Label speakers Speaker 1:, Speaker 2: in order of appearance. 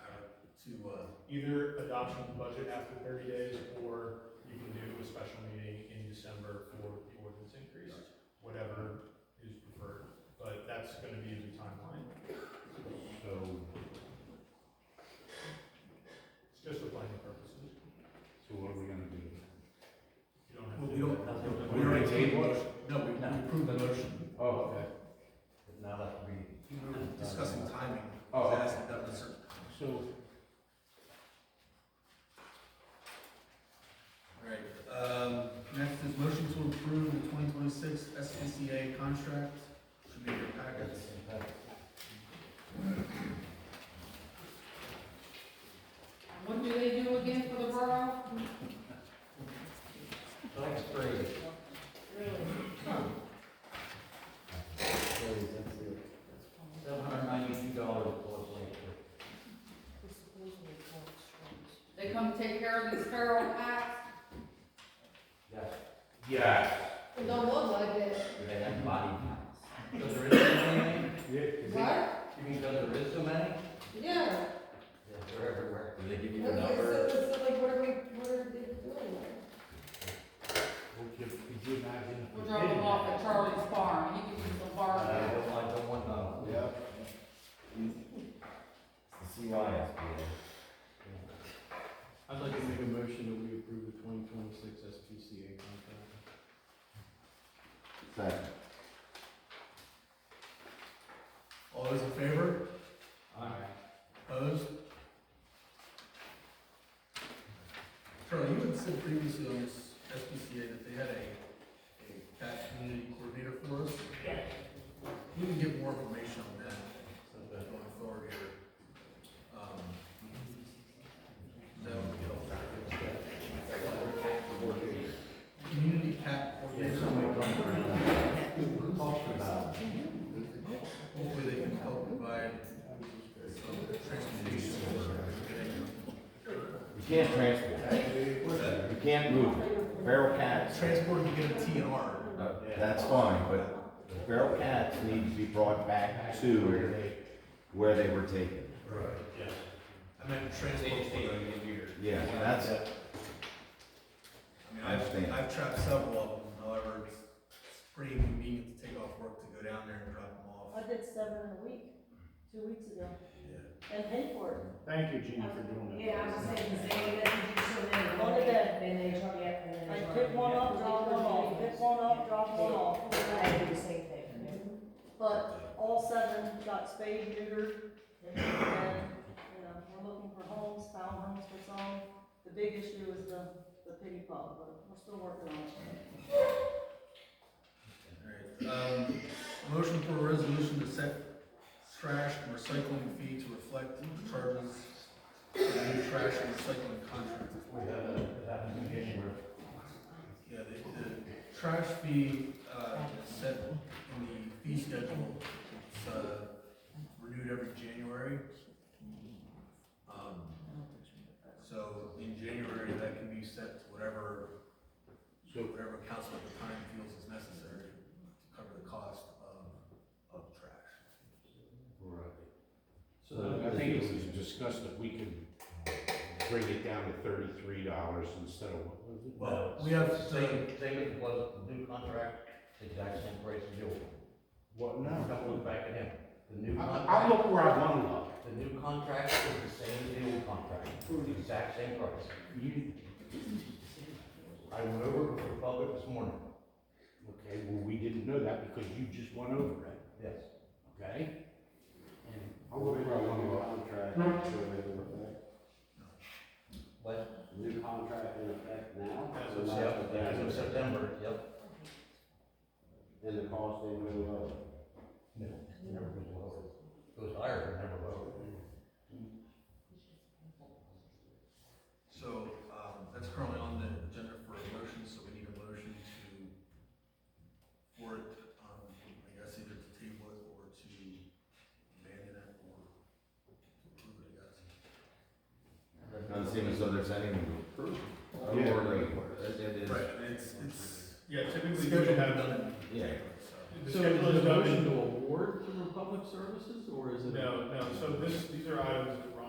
Speaker 1: uh,
Speaker 2: either adoption of the budget after thirty days, or you can do a special meeting in December for the ordinance increase, whatever is preferred, but that's gonna be the timeline.
Speaker 3: So,
Speaker 2: It's just for planning purposes,
Speaker 3: so what are we gonna do?
Speaker 2: you don't have
Speaker 1: Well,
Speaker 2: to.
Speaker 1: we don't.
Speaker 3: We already tabled it?
Speaker 1: No, we we approved the motion.
Speaker 3: Oh, okay.
Speaker 4: Now that we,
Speaker 1: We were discussing timing.
Speaker 3: Oh, okay.
Speaker 1: Asking that was certain.
Speaker 3: So,
Speaker 1: All right, um, next is motion to approve the twenty twenty-six SPCA contract. Should be in your packets.
Speaker 5: What do they do again for the borough?
Speaker 4: tax free.
Speaker 5: Really?
Speaker 4: Seven hundred ninety-two dollars plus labor.
Speaker 5: They come take care of these feral cats?
Speaker 4: Yes,
Speaker 3: yeah.
Speaker 5: They don't look like it.
Speaker 4: they have body counts. Because there is so many,
Speaker 3: Yeah, is it-
Speaker 5: What?
Speaker 4: you mean because there is so many?
Speaker 5: Yeah.
Speaker 4: Yes, they're everywhere. Do they give you
Speaker 5: Okay,
Speaker 4: the
Speaker 5: so,
Speaker 4: number?
Speaker 5: so like, what are we, what are they doing?
Speaker 3: would you, could you imagine? if we
Speaker 5: We're dropping
Speaker 3: didn't
Speaker 5: off at
Speaker 3: have-
Speaker 5: Charlie's farm, you can use the
Speaker 4: Uh,
Speaker 5: farm.
Speaker 4: I don't, I don't want none.
Speaker 3: Yeah.
Speaker 4: It's the CYSBA.
Speaker 6: I'd like to make a motion that we approve the twenty twenty-six SPCA contract.
Speaker 4: Second.
Speaker 1: All those in favor?
Speaker 6: Aye.
Speaker 1: Opposed? Charlie, you had said previously on this SPCA that they had a, a tax community coordinator for us. We can get more information on that going forward here. Um, That would be helpful. Community cap
Speaker 4: There's
Speaker 1: coordinator,
Speaker 4: so many coming around. Talk about it.
Speaker 1: hopefully they can help provide some transportation for,
Speaker 7: You can't transport. You can't move. Feral cats,
Speaker 1: transport to get a TNR.
Speaker 7: uh, that's fine, but feral cats need to be brought back to where they were taken.
Speaker 1: Right.
Speaker 2: Yes.
Speaker 1: I meant transport. I
Speaker 7: Yeah, that's,
Speaker 1: mean,
Speaker 7: I
Speaker 1: I've,
Speaker 7: understand.
Speaker 1: I've trapped several of them, however, it's it's pretty convenient to take off work to go down there and drop them off.
Speaker 8: I did seven in a week, two weeks ago, and paid for it,
Speaker 3: Thank you, Gene, for doing that.
Speaker 9: Yeah, I was saying, Zane, that you do so many,
Speaker 8: One a day.
Speaker 9: then they drop you up, and then
Speaker 8: I
Speaker 9: they drop
Speaker 8: pick
Speaker 9: you
Speaker 8: one
Speaker 9: up.
Speaker 8: up, drop one off, pick one up, drop one off,
Speaker 9: I do the same thing.
Speaker 8: but all seven got spayed, neutered, and, you know, we're looking for homes, found homes for some. The big issue is the, the pity pub, but we're still working on it.
Speaker 1: Alright, um, motion for a resolution to set trash and recycling fee to reflect charges for the new trash and recycling contract.
Speaker 4: We have a, that application where
Speaker 1: Yeah, the, the trash fee, uh, is set in the fee schedule, it's, uh, renewed every January. Um, so in January, that can be set to whatever,
Speaker 3: So-
Speaker 1: whatever council at the time feels is necessary to cover the cost of, of trash.
Speaker 4: So
Speaker 3: I think it was discussed that we could bring it down to thirty-three dollars instead of, what was it?
Speaker 1: Well, we have
Speaker 4: Same, same as it was the new contract, exact same price as the old one.
Speaker 3: What,
Speaker 4: Don't
Speaker 3: no.
Speaker 4: look back at him. The new
Speaker 3: I, I
Speaker 4: contract,
Speaker 3: look where I wanna look.
Speaker 4: the new contract is the same as the old contract, the exact same price.
Speaker 3: You,
Speaker 4: I went over with the public this morning,
Speaker 3: okay, well, we didn't know that because you just went over it,
Speaker 4: yes.
Speaker 3: okay? I look where I wanna look.
Speaker 6: Contract, in effect, new contract in effect
Speaker 4: But
Speaker 6: now.
Speaker 2: As
Speaker 6: so
Speaker 2: of
Speaker 6: that's
Speaker 4: Yep,
Speaker 6: what that
Speaker 4: as of
Speaker 6: is.
Speaker 4: September, yep.
Speaker 6: And the cost ain't really low.
Speaker 4: No, it never goes lower. Goes higher, but never lower.
Speaker 1: So, um, that's currently on the agenda for a motion, so we need a motion to, for it, um, I guess either to table it or to abandon it or to approve it, I guess.
Speaker 7: doesn't seem as though there's any proof. Or,
Speaker 3: Yeah.
Speaker 7: it it is,
Speaker 1: Right, and it's, it's.
Speaker 2: Yeah, typically you should have,
Speaker 1: done.
Speaker 7: yeah.
Speaker 2: the
Speaker 6: So is
Speaker 2: schedule is
Speaker 6: the
Speaker 2: done,
Speaker 6: motion to award to Republic Services, or is it?
Speaker 2: no, no, so this, these are items that